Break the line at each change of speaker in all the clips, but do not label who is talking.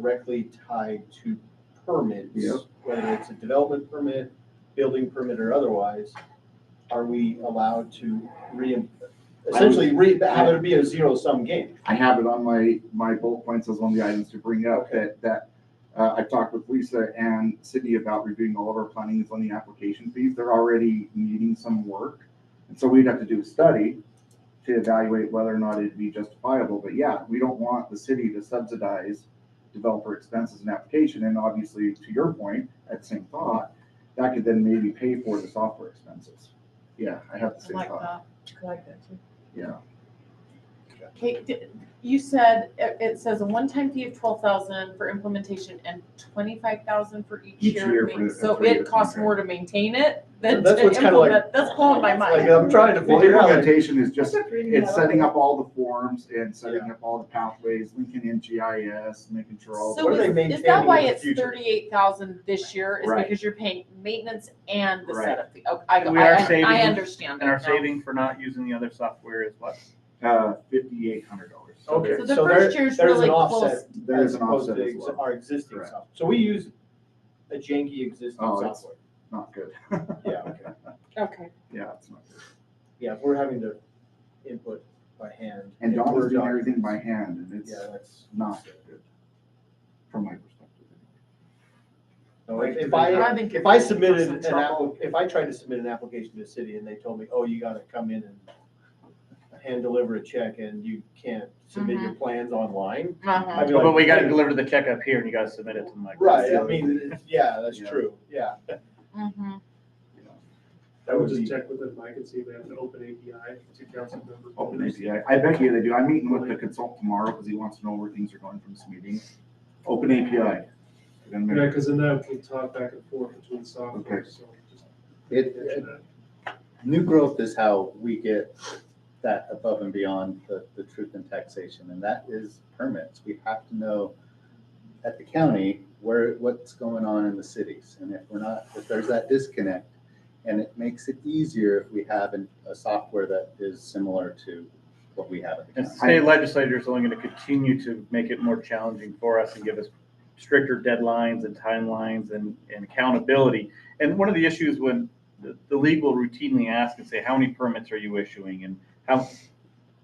directly tied to permits,
Yep.
whether it's a development permit, building permit, or otherwise, are we allowed to re, essentially re, have it be a zero-sum game?
I have it on my, my bullet points as one of the items to bring up that, that, uh, I've talked with Lisa and Sydney about reviewing all of our plannings on the application fees. They're already needing some work. And so we'd have to do a study to evaluate whether or not it'd be justifiable. But yeah, we don't want the city to subsidize developer expenses and application. And obviously, to your point, at same thought, that could then maybe pay for the software expenses. Yeah, I have the
I
same
like
thought.
that. I like that too.
Yeah.
Kate, di- you said, it, it says a one-time fee of twelve thousand for implementation and twenty-five thousand for each
Each
year.
year
of
for
main-
the-
So
for your
it costs
contract.
more to maintain it than
That's
to
what's kinda like-
implement, that's blowing my
Like,
mind.
I'm trying to
Well,
figure out,
implementation is just
Just reading
It's
that
setting
over.
up all the forms and setting up all the pathways, linking in GIS, making sure all.
So
What are they
the
is, is that
maintaining
why
in the
it's
future?
thirty-eight thousand this year, is
Right.
because you're paying maintenance and the
Right.
setup fee? Oh, I,
And we are
I- I,
saving-
I understand that
And our
now.
saving for not using the other software is what?
Uh, fifty-eight hundred dollars.
okay,
So the
so there,
first year's
there's an
really
offset.
close.
There is
as
an
opposed
offset
to
as
ex-
well,
Our existing
Correct.
software. So we use a janky existing
Oh, it's-
software.
not good.
Yeah, okay.
Okay.
Yeah, it's not good.
Yeah, if we're having to input by hand.
And
into
Donna's
Word
doing everything by
documents,
hand and it's
Yeah, that's.
not good, from my perspective.
No, if- If
I
I, uh,
think
if
you're
I
getting
submitted
us
an
in trouble.
app, if I tried to submit an application to the city and they told me, oh, you gotta come in and hand deliver a check and you can't submit your
Mm-hmm.
plans online.
Uh-huh.
I'd be
But
like,
we gotta
"Hey,
deliver the check up here and you gotta submit it to Mike.
Right, I mean, it's- yeah, that's
Yeah.
true, yeah.
Mhm.
That would
just
be,
check with them, Mike, and see if they have an open API to council members.
Open API, I bet you they do. I'm meeting with the consultant tomorrow because he wants to know where things are going from this meeting. Open API. We're gonna
Yeah,
make-
because then that will talk back and forth between software,
Okay.
so just.
It, it- new growth is how we get that above and beyond the, the truth in taxation, and that is permits. We have to know at the county where, what's going on in the cities, and if we're not, if there's that disconnect, and it makes it easier if we have an- a software that is similar to what we have at the
And
county.
state legislators are only gonna continue to make it more challenging for us and give us stricter deadlines and timelines and, and accountability. And one of the issues when the, the league will routinely ask and say, how many permits are you issuing? And how,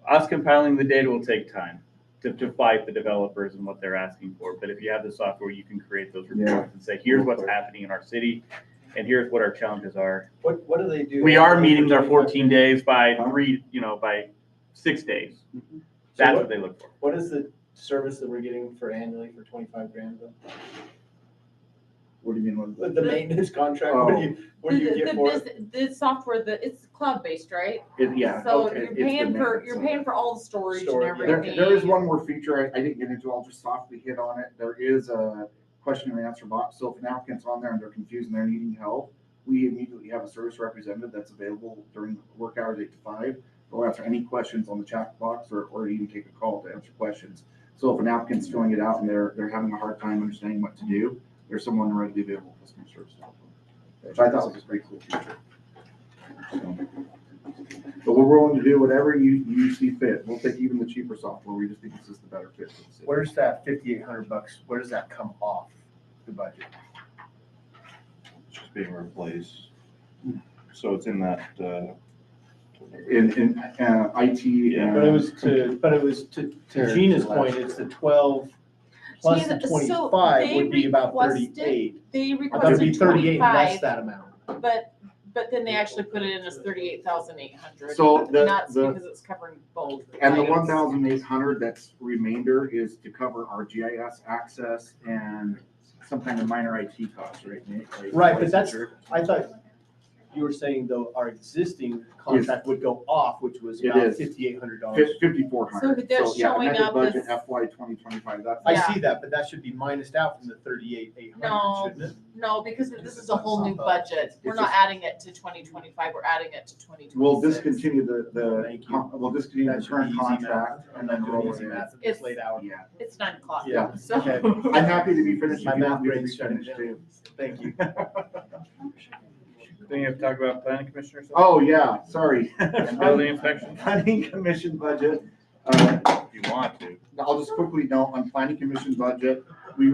us compiling the data will take time to, to fight the developers and what they're asking for. But if you have the software, you can create those
Yeah.
reports and say, here's what's happening in our city and here's what our challenges are.
what, what do they do?
We are meeting our fourteen days by three, you know, by six days. That's what they look for.
What is the service that we're getting for annually for twenty-five grand though?
What do you mean? what-
The, the maintenance contract, what do you, what do
The-
you
the-
get
the
for it?
bus- The software, the, it's cloud-based, right?
It- Yeah.
So
it-
you're
it's the
paying for,
maintenance
you're
of it.
paying for all the storage and
Storage, yeah.
There,
everything.
there is one more feature I, I didn't get into, I'll just softly hit on it. There is a question and answer box, so if an applicant's on there and they're confused and they're needing help, we immediately have a service representative that's available during work hours eight to five. They'll answer any questions on the chat box or, or even take a call to answer questions. So if an applicant's filling it out and they're, they're having a hard time understanding what to do, there's someone readily available for customer service. to help them, Which I thought was a pretty cool feature. So. But we're willing to do whatever you, you see fit. We'll take even the cheaper software. We just think this is the better fit for the city.
Where's that fifty-eight hundred bucks, where does that come off the budget?
It's just being replaced. So it's in that, uh,
In, in, uh, IT
Yeah,
But it
and
was to, but it was to, to
Terry,
Gina's
last
point,
year.
it's the twelve plus the
Yeah, so
twenty-five
they
would be about
requested-
thirty-eight.
They
I thought it'd be
requested
thirty-eight, and that's
twenty-five,
that amount.
but, but then they actually put it in as thirty-eight thousand eight hundred.
So the-
That's
the-
because it's covering both.
and the
items.
one thousand eight hundred that's remainder is to cover our GIS access and some kind of minor IT costs, right? Nate? Like
Right, but that's-
licensure.
I thought you were saying though, our existing contract would go off, which was
It
about
is.
fifty-eight hundred dollars.
Fif- Fifty-four hundred.
So they're showing up
Budget
as-
FY twenty twenty-five, that's.
I
Yeah.
see that, but that should be minused out from the thirty-eight, eight
No.
hundred, shouldn't it?
No, because this is a whole new
It's
budget. We're not
just-
adding it to twenty twenty-five, we're adding it to twenty
We'll
twenty-six.
discontinue the, the,
Thank you.
con- we'll discontinue
That
the
should be
current
easy math.
contract
I'm
and
not
then
doing
roll it
easy
in.
math at this late hour.
Yeah.
It's nine o'clock.
Yeah,
so-
okay.
I'm happy to be finished.
My
if you
math
want me to be
brain's shutting
finished,
down.
too.
Thank you.
Then you have to talk about planning commissioners.
Oh, yeah, sorry.
And building inspection,
Planning commission budget. Uh,
if you want to.
I'll just quickly note on planning commission budget,